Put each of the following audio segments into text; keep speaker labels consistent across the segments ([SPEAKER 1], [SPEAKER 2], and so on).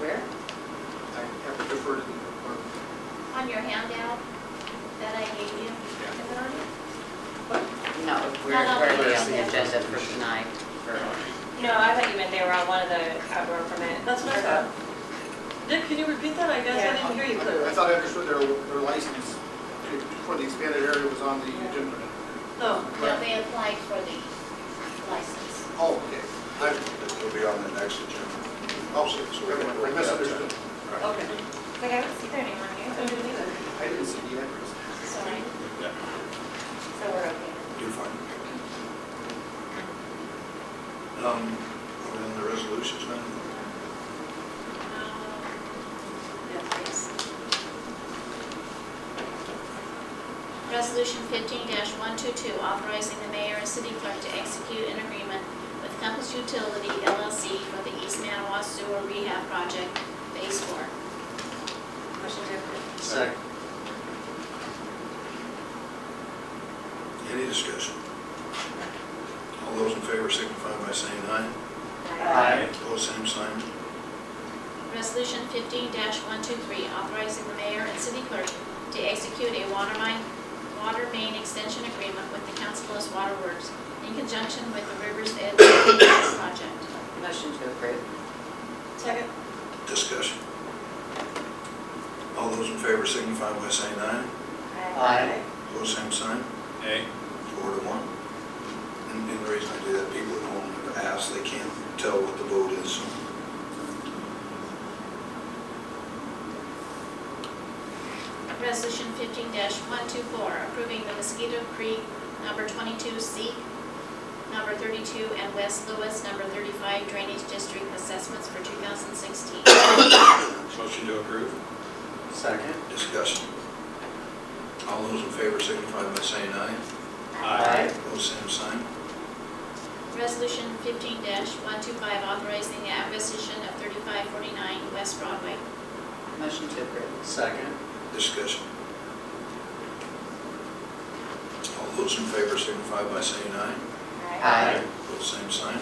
[SPEAKER 1] Where?
[SPEAKER 2] I have to defer to the department.
[SPEAKER 3] On your handout that I gave you, is it on it?
[SPEAKER 1] No, where,
[SPEAKER 3] no,
[SPEAKER 1] where
[SPEAKER 3] we
[SPEAKER 1] was
[SPEAKER 3] don't
[SPEAKER 1] the
[SPEAKER 3] have
[SPEAKER 1] agenda for tonight? Or-
[SPEAKER 4] No, I thought you meant they were on one of the outdoor permit.
[SPEAKER 5] That's what I thought. Dick, can you repeat that? I guess I didn't hear you
[SPEAKER 2] I
[SPEAKER 5] clearly.
[SPEAKER 2] thought I understood their, their license for the expanded area was on the agenda.
[SPEAKER 5] No.
[SPEAKER 3] No, they applied for the license.
[SPEAKER 2] Oh, okay. I-
[SPEAKER 6] It'll be on the next agenda.
[SPEAKER 2] Oh, so so never mind. I misunderstood.
[SPEAKER 5] Okay.
[SPEAKER 4] Like, I don't see their name on here,
[SPEAKER 2] I didn't see the address.
[SPEAKER 3] Sorry.
[SPEAKER 4] so we're okay.
[SPEAKER 6] You're fine. Um, we're in the resolutions now.
[SPEAKER 3] Resolution fifteen one two two, authorizing the mayor and city clerk to execute an agreement with Compass Utility LLC for the East Manawa Sewer Rehab Project Phase Four.
[SPEAKER 4] Motion to approve.
[SPEAKER 1] Second.
[SPEAKER 6] Any discussion? All those in favor signify by saying aye.
[SPEAKER 5] Uh,
[SPEAKER 6] Opposed, same sign.
[SPEAKER 3] Resolution fifteen one two three, authorizing the mayor and city clerk to execute a water main, water main extension agreement with the Council Bluffs Water Works in conjunction with the Rivers Edge project.
[SPEAKER 1] Motion to approve.
[SPEAKER 5] Second.
[SPEAKER 6] Discussion. All those in favor signify by saying aye.
[SPEAKER 1] Aye.
[SPEAKER 6] Opposed, same sign.
[SPEAKER 7] Nay.
[SPEAKER 6] Four to one. And and the reason I do that, people at home have asked, they can't tell what the vote is.
[SPEAKER 3] Resolution fifteen one two four, approving the Mosquito Creek number twenty-two C, number thirty-two, and West Lewis number thirty-five drainage district assessments for two thousand sixteen.
[SPEAKER 7] Motion to approve?
[SPEAKER 1] Second.
[SPEAKER 6] Discussion. All those in favor signify by saying aye.
[SPEAKER 1] Aye.
[SPEAKER 6] Opposed, same sign.
[SPEAKER 3] Resolution fifteen one two five, authorizing the acquisition of thirty-five forty-nine West Broadway.
[SPEAKER 1] Motion to approve. Second.
[SPEAKER 6] Discussion. All those in favor signify by saying aye.
[SPEAKER 1] Aye.
[SPEAKER 6] Opposed, same sign.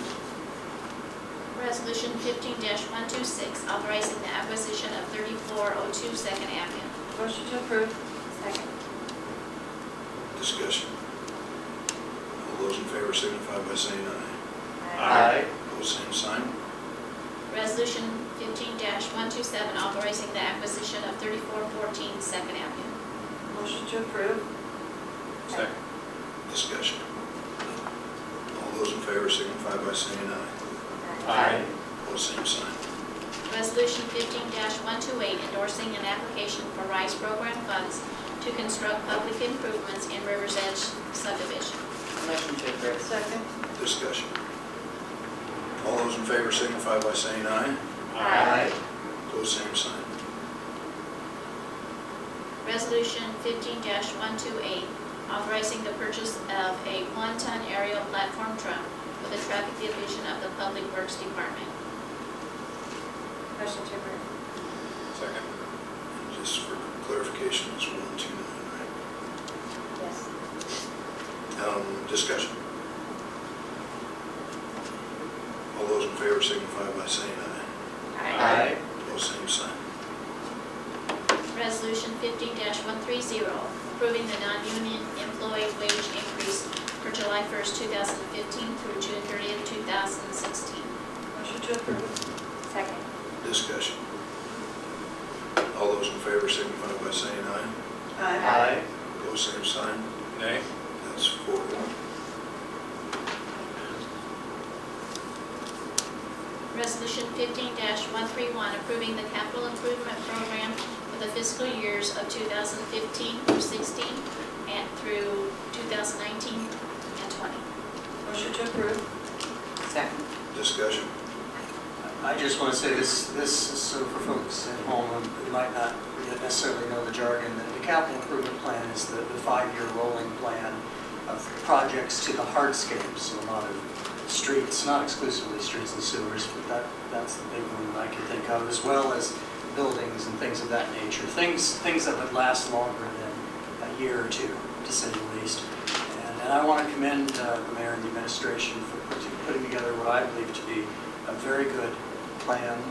[SPEAKER 3] Resolution fifteen one two six, authorizing the acquisition of thirty-four oh two Second Avenue.
[SPEAKER 5] Motion to approve.
[SPEAKER 4] Second.
[SPEAKER 6] Discussion. All those in favor signify by saying aye.
[SPEAKER 7] Aye.
[SPEAKER 6] Opposed, same sign.
[SPEAKER 3] Resolution fifteen one two seven, authorizing the acquisition of thirty-four fourteen Second Avenue.
[SPEAKER 5] Motion to approve.
[SPEAKER 7] Second.
[SPEAKER 6] Discussion. All those in favor signify by saying aye.
[SPEAKER 7] Aye.
[SPEAKER 6] Opposed, same sign.
[SPEAKER 3] Resolution fifteen one two eight, endorsing an application for RISE program funds to construct public improvements in Rivers Edge subdivision.
[SPEAKER 1] Motion to approve.
[SPEAKER 5] Second.
[SPEAKER 6] Discussion. All those in favor signify by saying aye. Opposed, same sign.
[SPEAKER 3] Resolution fifteen one two eight, authorizing the purchase of a one-ton aerial platform truck for the traffic division of the Public Works Department.
[SPEAKER 4] Motion to approve.
[SPEAKER 7] Second.
[SPEAKER 6] And Just for clarification, it's one, two, nine,
[SPEAKER 4] Yes.
[SPEAKER 6] right? Um, Discussion. All those in favor signify by saying aye.
[SPEAKER 1] Aye.
[SPEAKER 6] Opposed, same sign.
[SPEAKER 3] Resolution fifteen one three zero, approving the non-union employee wage increase for July first, two thousand fifteen through June thirtieth, two thousand sixteen.
[SPEAKER 5] Motion to approve.
[SPEAKER 4] Second.
[SPEAKER 6] Discussion. All those in favor signify by saying aye. Opposed, same sign.
[SPEAKER 7] Nay.
[SPEAKER 6] That's four to one.
[SPEAKER 3] Resolution fifteen one three one, approving the capital improvement program for the fiscal years of two thousand fifteen through sixteen and through two thousand nineteen and twenty.
[SPEAKER 5] Motion to approve.
[SPEAKER 1] Second.
[SPEAKER 6] Discussion.
[SPEAKER 8] I just want to say this, this is so for folks at home who might not necessarily know the jargon, that the capital improvement plan is the, the five-year rolling plan of projects to the hardscape, so a lot of streets, not exclusively streets and sewers, but that, that's the big one that I can think of, as well as buildings and things of that nature, things, things that would last longer than a year or two, to say the least. And- And I want to commend uh, the mayor and the administration for putting- putting together what I believe to be a very good plan